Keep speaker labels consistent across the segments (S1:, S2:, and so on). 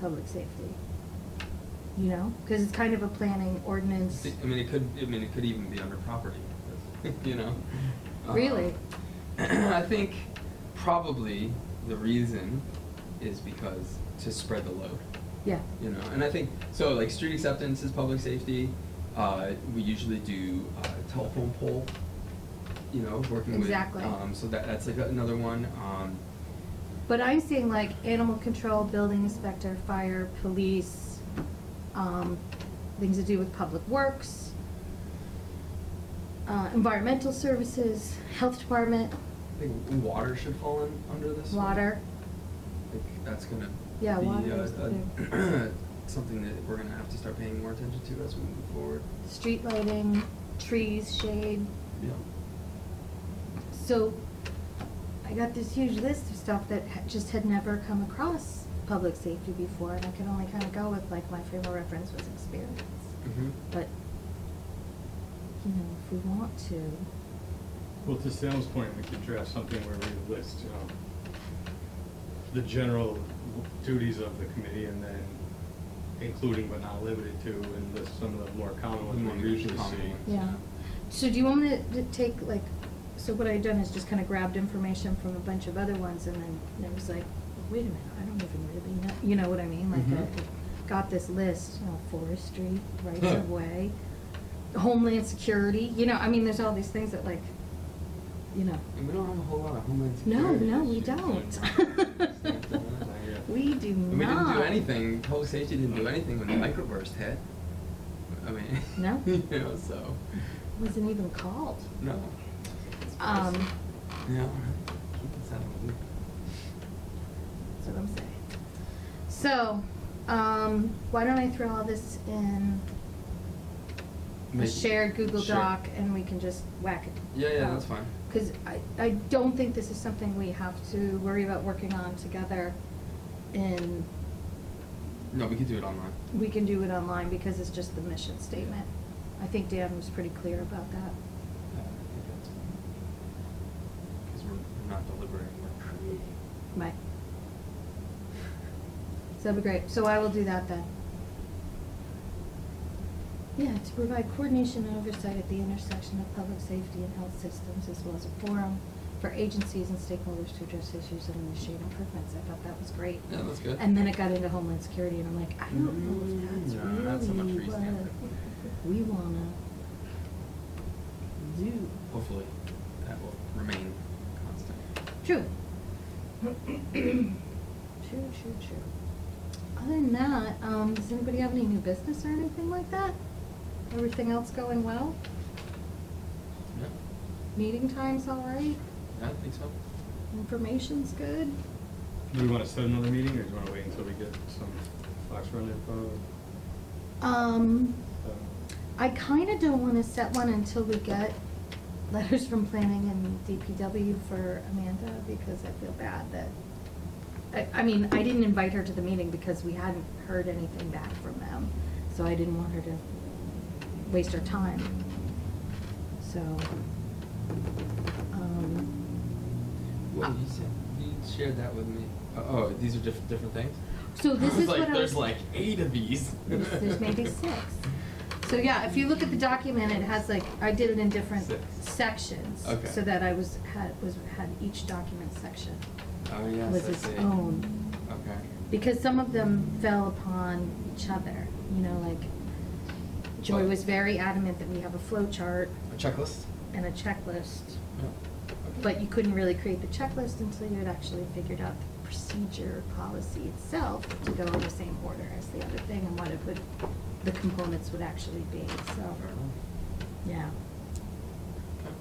S1: public safety? You know, because it's kind of a planning ordinance.
S2: I mean, it could, I mean, it could even be under property, you know? Um,
S1: Really?
S2: I think probably the reason is because to spread the load,
S1: Yeah,
S2: you know? And I think, so like street acceptance is public safety, uh, we usually do uh, telephone pole, you know, working with.
S1: Exactly.
S2: Um, so that, that's like another one, um,
S1: but I'm seeing like animal control, building inspector, fire, police, um, things to do with public works, uh, environmental services, health department,
S2: I think water should fall in, under this one.
S1: water.
S2: Like, that's gonna
S1: Yeah,
S2: be
S1: water
S2: uh,
S1: is the
S2: a-
S1: thing.
S2: something that we're gonna have to start paying more attention to as we move forward.
S1: street lighting, trees, shade.
S2: Yeah.
S1: So I got this huge list of stuff that ha- just had never come across public safety before, and I could only kind of go with like my frame of reference was experience.
S2: Mhm.
S1: But, you know, if we want to,
S3: Well, to Sam's point, we could draft something where we list, you know, the general duties of the committee and then including but not limited to, and list some of the more common
S2: More
S3: ones we usually
S2: common
S3: see.
S2: ones.
S1: yeah. So do you want me to d- take like, so what I done is just kind of grabbed information from a bunch of other ones and then and it was like, wait a minute, I don't even really know, you know what I mean? Like,
S2: Mhm.
S1: I got this list, you know, forestry, rights of way, homeland security, you know, I mean, there's all these things that like, you know,
S2: And we don't have a whole lot of homeland
S1: no,
S2: security.
S1: no, we
S2: issues.
S1: don't.
S3: Yeah.
S1: We do
S2: And we didn't
S1: not.
S2: do anything, public safety didn't do anything when the microburst hit. I mean.
S1: No.
S2: You know, so,
S1: Wasn't even called.
S2: no.
S1: Um,
S2: Yeah, all right. Keep this out of the loop.
S1: That's what I'm saying. So, um, why don't I throw all this in a
S2: Make-
S1: shared Google
S2: Sure.
S1: Doc and we can just whack it?
S2: Yeah, yeah,
S1: out?
S2: that's fine.
S1: Cause I, I don't think this is something we have to worry about working on together and
S2: No, we could do it online.
S1: we can do it online because it's just the mission statement. I think Dan was pretty clear about that.
S2: Because we're we're not deliberating, we're creating.
S1: Right. So that'd be great. So I will do that then. Yeah, to provide coordination and oversight at the intersection of public safety and health systems, as well as a forum for agencies and stakeholders to address issues and initiate improvements. I thought that was great.
S2: Yeah, that's good.
S1: And then it got into Homeland Security, and I'm like, I don't know if that's
S2: Mm, no, not so much
S1: really
S2: for East
S1: what
S2: Hampton.
S1: we wanna do.
S2: Hopefully, that will remain constant.
S1: True. True, true, true. Other than that, um, does anybody have any new business or anything like that? Everything else going well?
S2: Yeah,
S1: Meeting time's all right?
S2: yeah, I think so.
S1: Information's good?
S3: Do we wanna set another meeting, or do you wanna wait until we get some Fox Run info?
S1: Um,
S3: Uh,
S1: I kinda don't wanna set one until we get letters from planning and DPW for Amanda, because I feel bad that, I, I mean, I didn't invite her to the meeting because we hadn't heard anything back from them, so I didn't want her to waste her time. So, um,
S2: Well,
S1: Uh,
S2: you said you Ah. shared that with me. Uh, oh, these are different different things.
S1: so this
S2: was
S1: is
S2: like,
S1: what I was.
S2: there's like eight of these.
S1: There's, there's maybe six. So yeah, if you look at the document, it has like, I did it in different
S2: Six.
S1: sections.
S2: Okay.
S1: So that I was, had, was, had each document section
S2: Oh yes,
S1: was
S2: I
S1: its
S2: see.
S1: own.
S2: Okay.
S1: Because some of them fell upon each other, you know, like Joy
S2: Oh.
S1: was very adamant that we have a flow chart
S2: A checklist.
S1: and a checklist.
S2: Yeah. Okay.
S1: But you couldn't really create the checklist until you had actually figured out the procedure policy itself to go in the same order as the other thing and what it would, the components would actually be, so,
S2: Fair enough.
S1: yeah.
S2: Okay.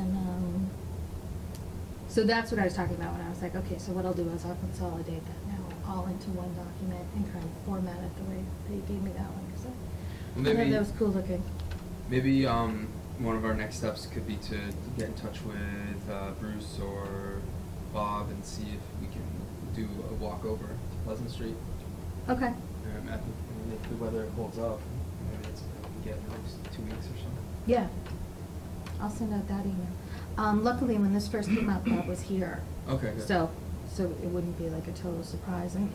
S1: And, um, so that's what I was talking about when I was like, okay, so what I'll do is I'll consolidate that now all into one document and kind of format it the way they gave me that one, because
S2: Well,
S1: I thought
S2: maybe-
S1: that was cool looking.
S2: Maybe um, one of our next steps could be to get in touch with uh, Bruce or Bob and see if we can do a walk over to Pleasant Street.
S1: Okay,
S2: Um, I think, I mean, if the weather holds up, maybe that's what we can get in the next two weeks or something.
S1: yeah. I'll send out that email. Um, luckily, when this first came out, Bob was here.
S2: Okay, good.
S1: So, so it wouldn't be like a total surprise, and,